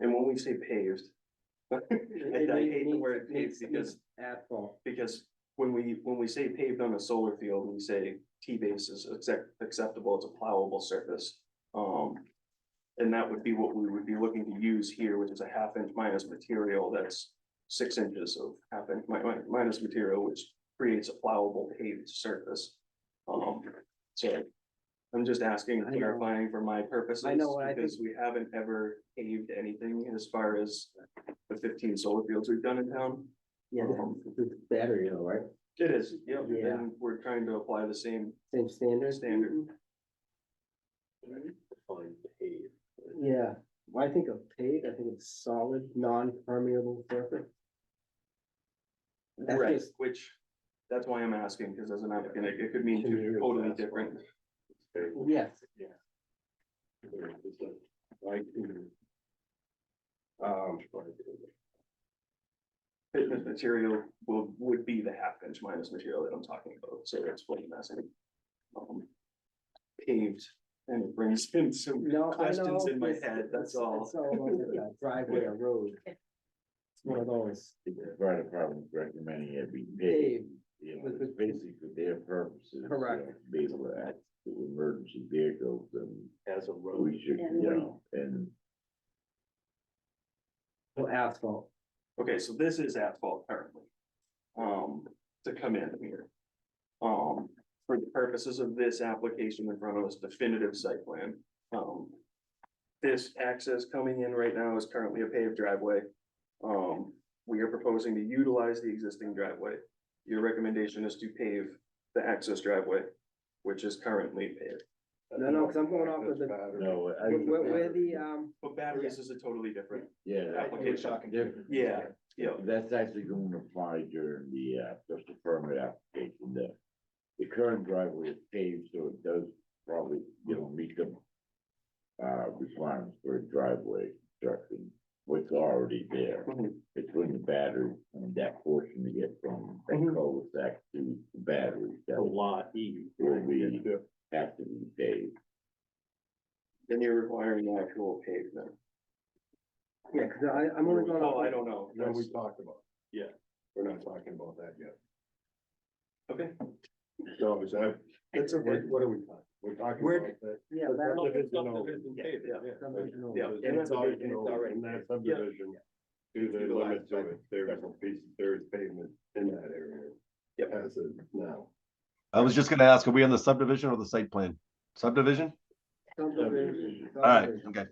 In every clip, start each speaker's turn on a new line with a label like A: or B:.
A: And when we say paved. I I hate the word paved
B: It's
A: because,
B: Asphalt.
A: because when we, when we say paved on a solar field, we say T-base is accept, acceptable, it's a plowable surface. Um, and that would be what we would be looking to use here, which is a half inch minus material that's six inches of half inch mi- mi- minus material, which creates a plowable paved surface. Um, so I'm just asking,
B: I know.
A: clarifying for my purposes.
B: I know, what I
A: Because we haven't ever paved anything as far as the fifteen solar fields we've done in town. Um,
B: Yeah, that's the battery though, right?
A: It is, yeah,
B: Yeah.
A: and we're trying to apply the same
B: Same standards.
A: standard.
B: Yeah, When I think of paved, I think of solid, non-permeable surface. That's
A: Right,
B: just-
A: which, that's why I'm asking, because as an applicant, it it could mean
C: Can
A: two
C: you-
A: totally different.
B: Yes,
C: Um,
A: Fitness material will, would be the half inch minus material that I'm talking about, so that's what I'm asking. Um, Paved, and it brings in some
B: no, I know.
A: questions in my
B: it's-
A: head, that's
B: it's-
A: all.
B: it's over the Driveway or road. It's one of those
C: the fire department recommending it be paid,
B: paved,
C: you know,
B: With the-
C: it's basically for their purposes. you know,
B: Correct.
C: Based on that, the emergency vehicles and
A: As a
C: we should, you know, and
B: no asphalt.
A: Okay, so this is asphalt currently. Um, to come in here. Um, for the purposes of this application in front of us, definitive site plan, um. This access coming in right now is currently a paved driveway. Um, we are proposing to utilize the existing driveway. Your recommendation is to pave the access driveway, which is currently paved.
B: No, no, 'cause I'm going off of the-
C: no, I.
B: Where, where- where the, um,
A: But batteries is a totally different,
C: Yeah. that's
A: Application.
C: what we're talking about.
A: yeah, yeah,
C: That's actually going to apply during the, uh, special permit application, the, the current driveway is paved, so it does probably, you know, meet the uh, requirements for a driveway construction, what's already there,
A: Mhm.
C: between the battery and that portion to get from that
A: Mhm.
C: cul-de-sac to the battery. That
D: lot E.
C: will be, have to be paved,
A: then you're requiring actual pavement.
B: yeah, cause I, I'm only going off.
A: Oh, I don't know. That's-
D: talked about.
A: Yeah.
D: We're not talking about that yet.
A: Okay.
D: So is that,
A: That's okay.
D: what what are we talking? We're talking
A: We're-
D: about that.
B: Yeah,
D: the
B: that-
D: subdivision over.
A: Yeah, yeah.
B: subdivision over.
A: Yeah.
D: It's
A: and that's a
D: already
A: big- it's
D: over
A: already-
D: in that subdivision. To the
A: Utilize
D: limit to
A: that.
D: it, there is a piece, there is pavement in that area.
A: Yep.
D: As of now.
E: I was just gonna ask, are we on the subdivision or the site plan? Subdivision?
B: Subdivision,
E: All right,
B: subdivision.
E: okay.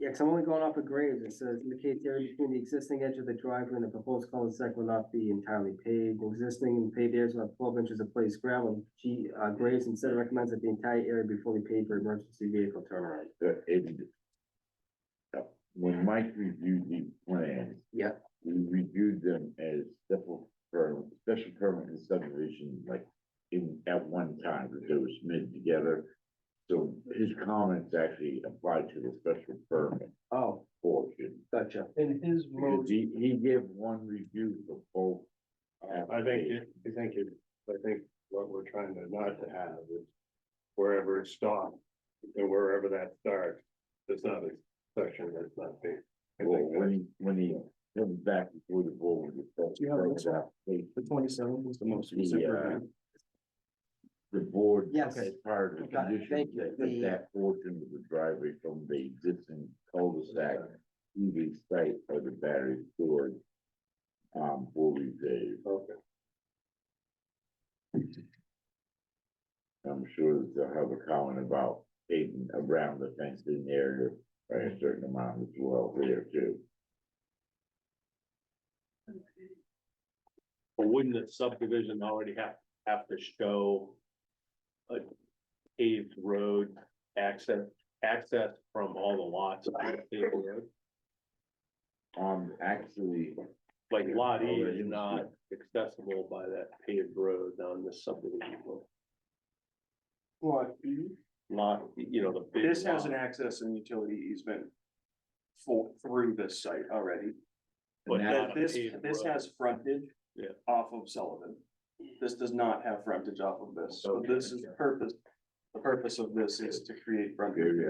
B: Yeah, cause I'm only going off of Graves, it says indicates the area between the existing edge of the driveway and the proposed cul-de-sac will not be entirely paved. Existing and paved areas will have twelve inches of placed gravel. G, uh, Graves instead recommends that the entire area be fully paved for emergency vehicle turnaround.
C: that it. uh, When Mike reviewed the plans,
B: Yeah,
C: we reviewed them as special permit, special permit and subdivision, like in, at one time, because they were submitted together. So his comments actually apply to the special permit
B: oh,
C: portion.
B: gotcha.
D: In his
C: Because he, he gave one review for both.
D: I think, it- I think, it- I think what we're trying to not to have is wherever it stops and wherever that starts, there's not a section that's not big. I
C: Well,
D: think
C: when he, when he comes back before the board with the
A: You have
C: special
A: it.
C: permit application,
A: The twenty-seven was the most
C: Yeah.
A: recent review.
C: the board.
B: Yes.
C: As part of the
B: Got it. Thank
C: condition,
B: you.
C: that
B: The-
C: that that portion of the driveway from the existing cul-de-sac to the site of the battery storage. Um, will be paved.
D: Okay.
C: I'm sure that they'll have a comment about paving around the fenced in area by a certain amount as well there too.
F: But wouldn't the subdivision already have, have to show a paved road access, access from all the lots? to the paved road?
C: Um, actually,
F: Like lot E is not accessible by that paved road on the subdivision.
A: What?
F: Lot, you know, the big
A: This has an
F: lot.
A: access and utility easement for, through this site already.
F: But
C: now-
F: not
A: That
F: a
A: this,
F: paved
A: this
F: road.
A: has frontage
F: Yeah.
A: off of Sullivan. This does not have frontage off of this, so
F: Okay.
A: this is the purpose, the purpose of this is to create frontage.
C: there you